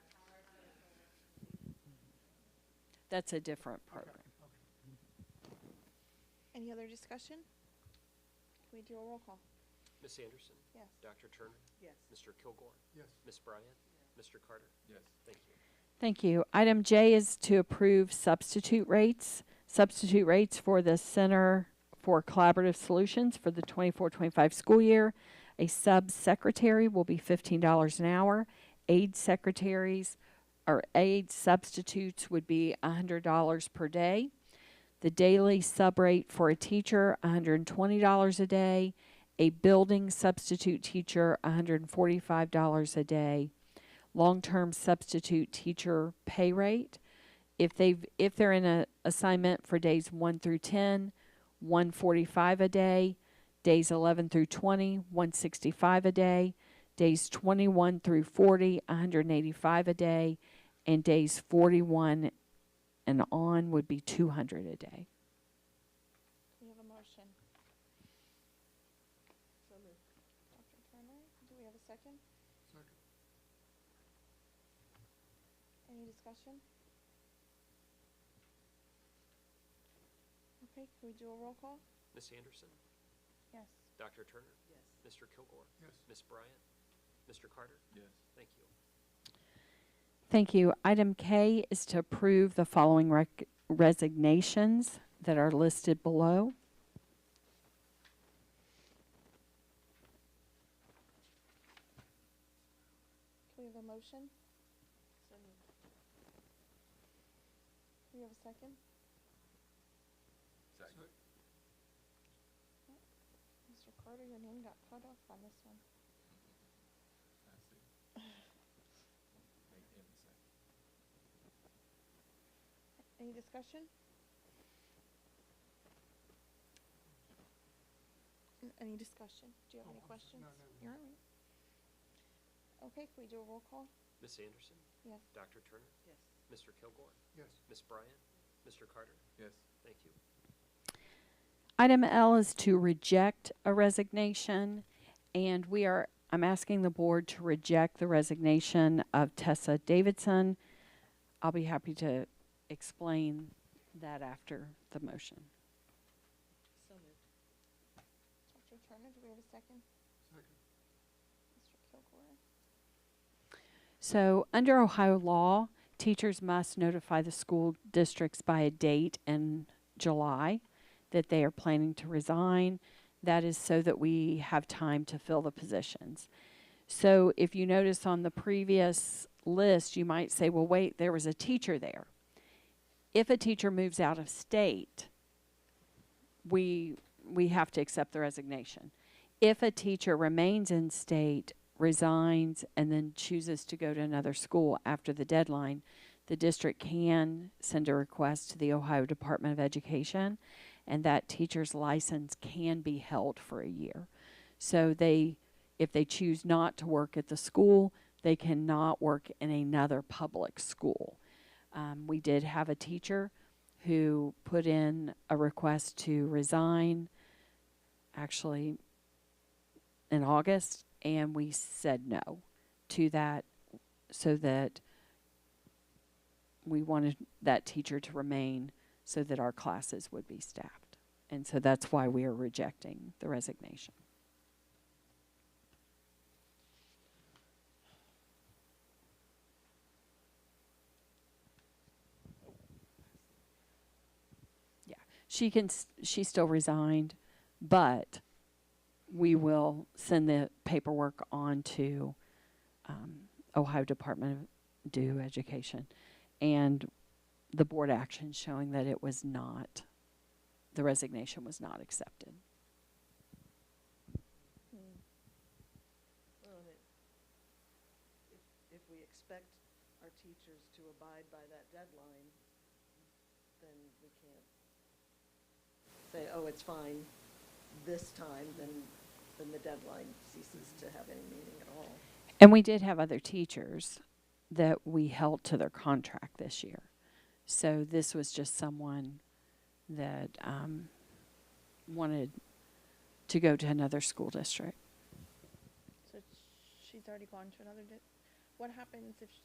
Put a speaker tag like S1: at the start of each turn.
S1: That's a different program.
S2: Any other discussion? Can we do a roll call?
S3: Miss Anderson?
S2: Yes.
S3: Dr. Turner?
S4: Yes.
S3: Mr. Kilgore?
S5: Yes.
S3: Miss Bryant? Mr. Carter?
S5: Yes.
S3: Thank you.
S1: Thank you. Item J is to approve substitute rates. Substitute rates for the Center for Collaborative Solutions for the 24-25 school year. A sub-secretary will be fifteen dollars an hour. Aid secretaries or aid substitutes would be hundred dollars per day. The daily sub-rate for a teacher, hundred and twenty dollars a day. A building substitute teacher, hundred and forty-five dollars a day long-term substitute teacher pay rate. If they've if they're in a assignment for days 1 through 10, 145 a day, days 11 through 20, 165 a day, days 21 through 40, 185 a day, and days 41 and on would be 200 a day.
S2: We have a motion. Dr. Turner, do we have a second?
S5: Second.
S2: Any discussion? Okay, can we do a roll call?
S3: Miss Anderson?
S2: Yes.
S3: Dr. Turner?
S4: Yes.
S3: Mr. Kilgore?
S5: Yes.
S3: Miss Bryant? Mr. Carter?
S5: Yes.
S3: Thank you.
S1: Thank you. Item K is to approve the following rec- resignations that are listed below.
S2: Can we have a motion?
S4: So moved.
S2: Do we have a second?
S5: Second.
S2: Mr. Carter, your name got cut off on this one.
S5: I see. Make him second.
S2: Any discussion? N- Any discussion? Do you have
S5: Oh,
S2: any
S5: I'm sorry.
S2: questions? You're all
S5: No, no, no.
S2: right. Okay, can we do a roll call?
S3: Miss Anderson?
S2: Yes.
S3: Dr. Turner?
S4: Yes.
S3: Mr. Kilgore?
S5: Yes.
S3: Miss Bryant? Mr. Carter?
S5: Yes.
S3: Thank you.
S1: Item L is to reject a resignation, and we are, I'm asking the board to reject the resignation of Tessa Davidson. I'll be happy to explain that after the motion.
S4: So moved.
S2: Dr. Turner, do we have a second?
S5: Second.
S2: Mr. Kilgore?
S1: So, under Ohio law, teachers must notify the school districts by a date in July that they are planning to resign. That is so that we have time to fill the positions. So, if you notice on the previous list, you might say, well, wait, there was a teacher there. If a teacher moves out of state, we, we have to accept the resignation if a teacher remains in state, resigns, and then chooses to go to another school after the deadline, the district can send a request to the Ohio Department of Education, and that teacher's license can be held for a year. So they, if they choose not to work at the school, they cannot work in another public school. Um, we did have a teacher who put in a request to resign. Actually, in August, and we said no to that so that we wanted that teacher to remain so that our classes would be staffed. And so that's why we are rejecting the resignation. Yeah, She can, s- she still resigned, but we will send the paperwork on to um, Ohio Department of Due Education and the board action showing that it was not, the resignation was not accepted.
S4: Well, and it, if, if we expect our teachers to abide by that deadline, then we can't say, oh, it's fine this time, then, then the deadline ceases to have any meaning at all.
S1: And we did have other teachers that we held to their contract this year. So this was just someone that um, wanted to go to another school district.
S2: So she's already gone to another, what happens if